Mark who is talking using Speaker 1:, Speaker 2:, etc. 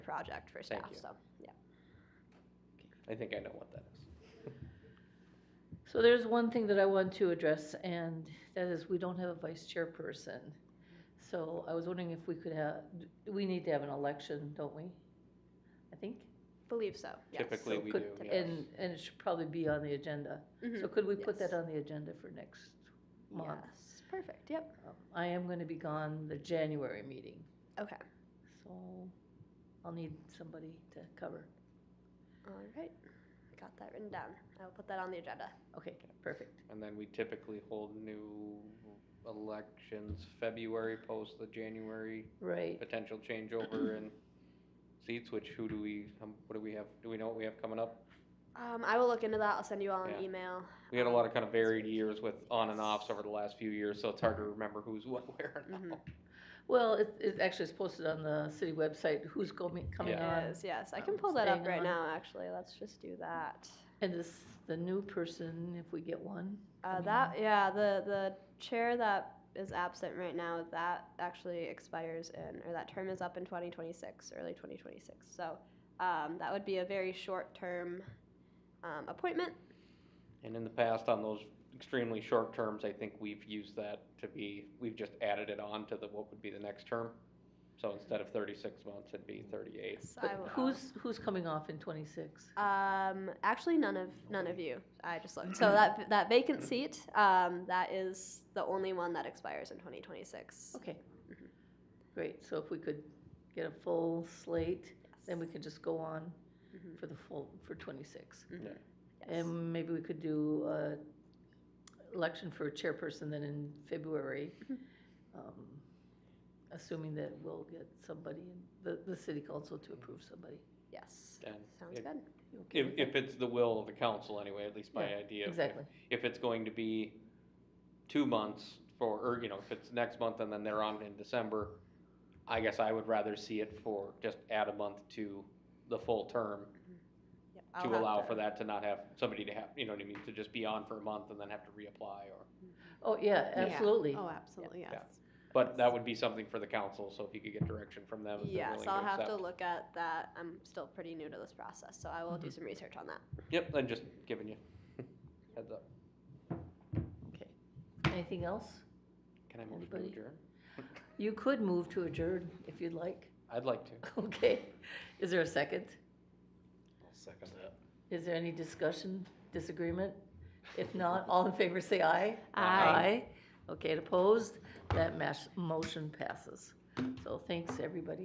Speaker 1: project for
Speaker 2: Thank
Speaker 1: staff,
Speaker 2: you.
Speaker 1: so, yeah.
Speaker 2: I think I know what that is.
Speaker 3: So there's one thing that I want to address, and that is we don't have a vice chairperson. So I was wondering if we could have, we need to have an election, don't we? I think.
Speaker 1: Believe so, yes.
Speaker 2: Typically,
Speaker 3: So
Speaker 2: we do,
Speaker 3: could-
Speaker 2: yes.
Speaker 3: And, and it should probably be on the agenda. So
Speaker 1: Mhm.
Speaker 3: could we put that
Speaker 1: Yes.
Speaker 3: on the agenda for next month?
Speaker 1: Yes, perfect, yep,
Speaker 3: Um, I am gonna be gone the January meeting,
Speaker 1: okay,
Speaker 3: so I'll need somebody to cover.
Speaker 1: all right. Got that written down. I will put that on the agenda.
Speaker 3: Okay, perfect.
Speaker 2: And then we typically hold new elections February post the January
Speaker 3: Right.
Speaker 2: potential changeover in seats, which who do we, um, what do we have, do we know what we have coming up?
Speaker 1: Um, I will look into that, I'll send you all
Speaker 2: Yeah.
Speaker 1: an email.
Speaker 2: We had a lot of kind of varied years with on and offs over the last few years, so it's hard to remember who's what, where now.
Speaker 1: Mhm.
Speaker 3: Well, it, it actually is posted on the city website, who's coming, coming
Speaker 2: Yeah.
Speaker 3: on.
Speaker 1: Yes, yes, I
Speaker 3: um,
Speaker 1: can pull that up
Speaker 3: staying
Speaker 1: right
Speaker 3: on.
Speaker 1: now, actually, let's just do that.
Speaker 3: And this, the new person, if we get one.
Speaker 1: Uh,
Speaker 3: coming
Speaker 1: that,
Speaker 3: on.
Speaker 1: yeah, the, the chair that is absent right now, that actually expires in, or that term is up in twenty twenty-six, early twenty twenty-six. So, um, that would be a very short-term, um, appointment.
Speaker 2: And in the past, on those extremely short terms, I think we've used that to be, we've just added it on to the, what would be the next term. So instead of thirty-six months, it'd be thirty-eight.
Speaker 1: So I
Speaker 3: But
Speaker 1: will- uh,
Speaker 3: who's, who's coming off in twenty-six?
Speaker 1: Um, actually, none of none of you. I just looked. So that that vacant seat, um, that is the only one that expires in 2026.
Speaker 3: Okay.
Speaker 1: Mhm.
Speaker 3: Mm-hmm. Great, so if we could get a full slate, then we could just go on
Speaker 1: Mhm.
Speaker 3: for the full, for twenty-six.
Speaker 1: Mhm. Yes.
Speaker 3: And maybe we could do a election for chairperson then in February.
Speaker 1: Mhm.
Speaker 3: um, Assuming that we'll get somebody, in- the, the city council to approve somebody.
Speaker 1: yes.
Speaker 2: And
Speaker 1: Sounds
Speaker 2: it-
Speaker 1: good.
Speaker 3: You okay
Speaker 2: If,
Speaker 3: with that?
Speaker 2: if it's the will of the council anyway, at least my
Speaker 3: Yeah,
Speaker 2: idea. of-
Speaker 3: Exactly,
Speaker 2: If it's going to be two months for, or, you know, if it's next month and then they're on in December, I guess I would rather see it for, just add a month to the full term
Speaker 1: Yep,
Speaker 2: to
Speaker 1: I'll have
Speaker 2: allow
Speaker 1: to-
Speaker 2: for that to not have somebody to have, you know what I mean, to just be on for a month and then have to reapply or.
Speaker 3: oh, yeah,
Speaker 4: Yeah.
Speaker 3: absolutely.
Speaker 4: Oh, absolutely,
Speaker 2: Yeah.
Speaker 4: yes.
Speaker 2: But that would be something for the council, so if you could get direction from them, if they're
Speaker 1: Yes,
Speaker 2: willing
Speaker 1: I'll
Speaker 2: to
Speaker 1: have to
Speaker 2: accept.
Speaker 1: look at that. I'm still pretty new to this process, so I will do
Speaker 3: Mhm.
Speaker 1: some research on that.
Speaker 2: Yep, I'm just giving you heads up.
Speaker 3: Okay, anything else?
Speaker 2: Can I move to
Speaker 3: Anybody?
Speaker 2: adjourn?
Speaker 3: You could move to adjourn if you'd like.
Speaker 2: I'd like to.
Speaker 3: Okay, is there a second?
Speaker 5: I'll second that.
Speaker 3: Is there any discussion, disagreement? If not, all in favor say aye.
Speaker 2: Aye.
Speaker 3: Okay, and opposed? That mash, motion passes. So thanks, everybody.